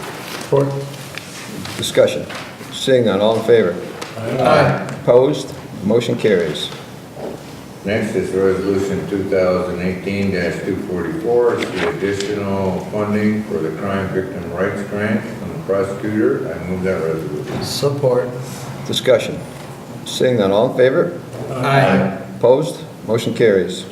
Support. Discussion. Seeing none, all in favor? Aye. Opposed? Motion carries. Next is Resolution 2018-244, it's the additional funding for the Crime Victim Rights Grant from the prosecutor. I move that resolution. Support. Discussion. Seeing none, all in favor? Aye. Opposed? Motion carries.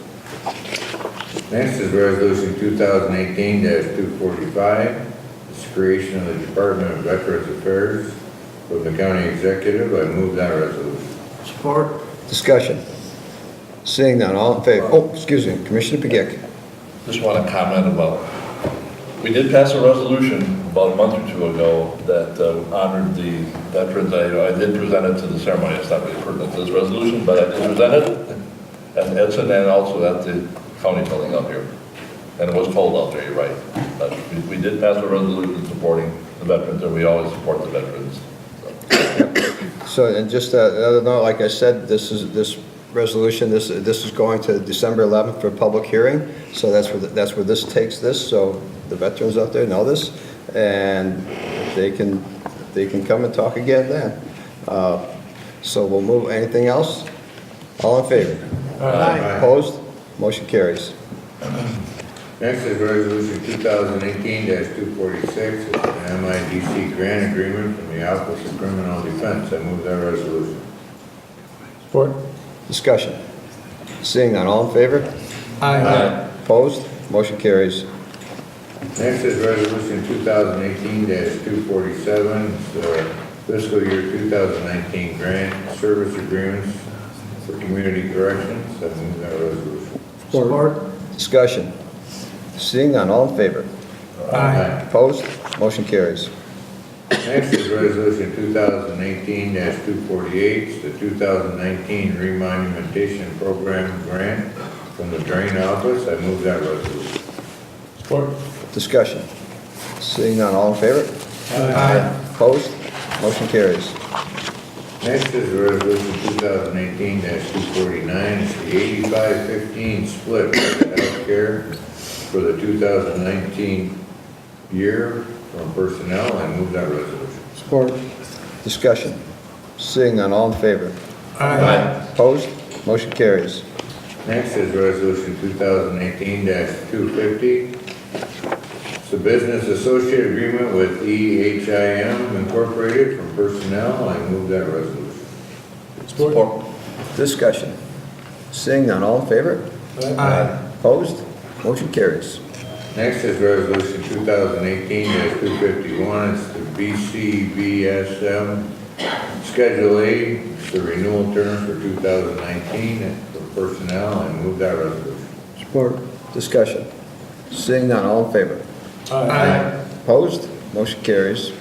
Next is Resolution 2018-245, it's creation of the Department of Veterans Affairs from the county executive. I move that resolution. Support. Discussion. Seeing none, all in favor? Oh, excuse me, Commissioner Begic. Just want to comment about, we did pass a resolution about a month or two ago that uh, honored the veterans. I, I did present it to the ceremony, it's not really pertinent to this resolution, but I did present it at Edson and also at the county building up here. And it was cold out there, you're right. But we, we did pass a resolution supporting the veterans, and we always support the veterans. So, and just uh, another note, like I said, this is, this resolution, this, this is going to December 11th for public hearing, so that's where, that's where this takes this, so the veterans out there know this, and they can, they can come and talk again then. Uh, So we'll move, anything else? All in favor? Aye. Opposed? Motion carries. Next is Resolution 2018-246, it's an MIDC grant agreement from the Office of Criminal Defense. I move that resolution. Support. Discussion. Seeing none, all in favor? Aye. Opposed? Motion carries. Next is resolution 2018-247, It's the fiscal year 2019 grant service agreements for community corrections. I move that resolution. Support. Discussion. Seeing none, all in favor? Opposed? Motion carries. Next is resolution 2018-248, It's the 2019 remonumentation program grant from the drain office. I move that resolution. Support. Discussion. Seeing none, all in favor? Opposed? Motion carries. Next is resolution 2018-249, it's the 85-15 split for the healthcare for the 2019 year from personnel. I move that resolution. Support. Discussion. Seeing none, all in favor? Opposed? Motion carries. Next is resolution 2018-250, it's a business associate agreement with E EHIM Incorporated from personnel. I move that resolution. Support. Discussion. Seeing none, all in favor? Opposed? Motion carries. Next is resolution 2018-251, it's the BCBSM Schedule A, it's the renewal term for 2019, It's for personnel, I move that resolution. Support. Discussion. Seeing none, all in favor? Opposed? Motion carries.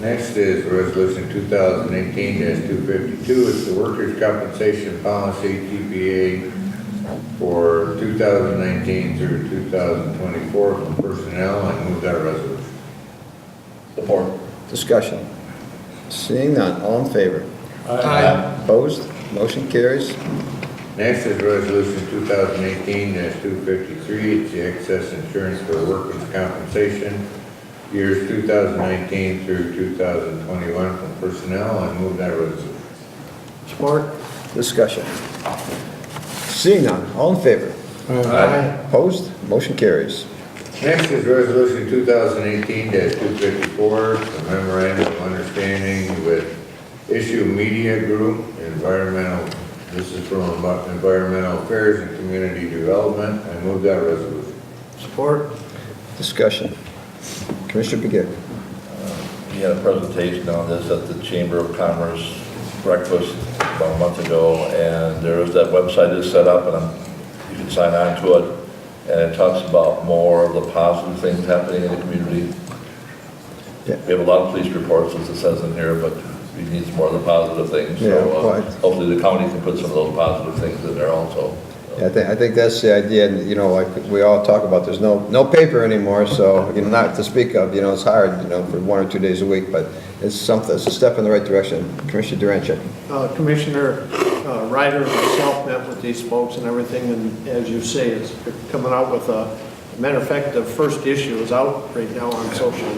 Next is resolution 2018-252, it's the workers' compensation policy TPA for 2019 through 2024 for personnel, I move that resolution. Support. Discussion. Seeing none, all in favor? Opposed? Motion carries. Next is resolution two thousand eighteen two fifty-three, it's the excess insurance for workers' compensation, years two thousand nineteen through two thousand twenty-one from personnel, I move that resolution. Support. Discussion. Seeing none, all in favor? Opposed? Motion carries. Next is resolution two thousand eighteen two fifty-four, the memorandum of understanding with Issue Media Group, environmental, this is from Environmental Affairs and Community Development, I move that resolution. Support. Discussion. Commissioner Begic. He had a presentation on this at the Chamber of Commerce breakfast about a month ago, and there is that website is set up, and I'm- you can sign on to it, and it talks about more of the positive things happening in the community. Yeah. We have a lot of police reports, as it says in here, but we need more of the positive things, so Yeah, uh, right. hopefully the county can put some of those positive things in there also. I think, I think that's the idea, and, you know, like we all talk about, there's no, no paper anymore, so, you know, not to speak of, you know, it's hard, you know, for one or two days a week, but it's something, it's a step in the right direction. Commissioner Durancheck. Uh, Commissioner uh, Ryder and myself met with these folks and everything, and as you say, it's they're coming out with a, matter of fact, the first issue is out right now on social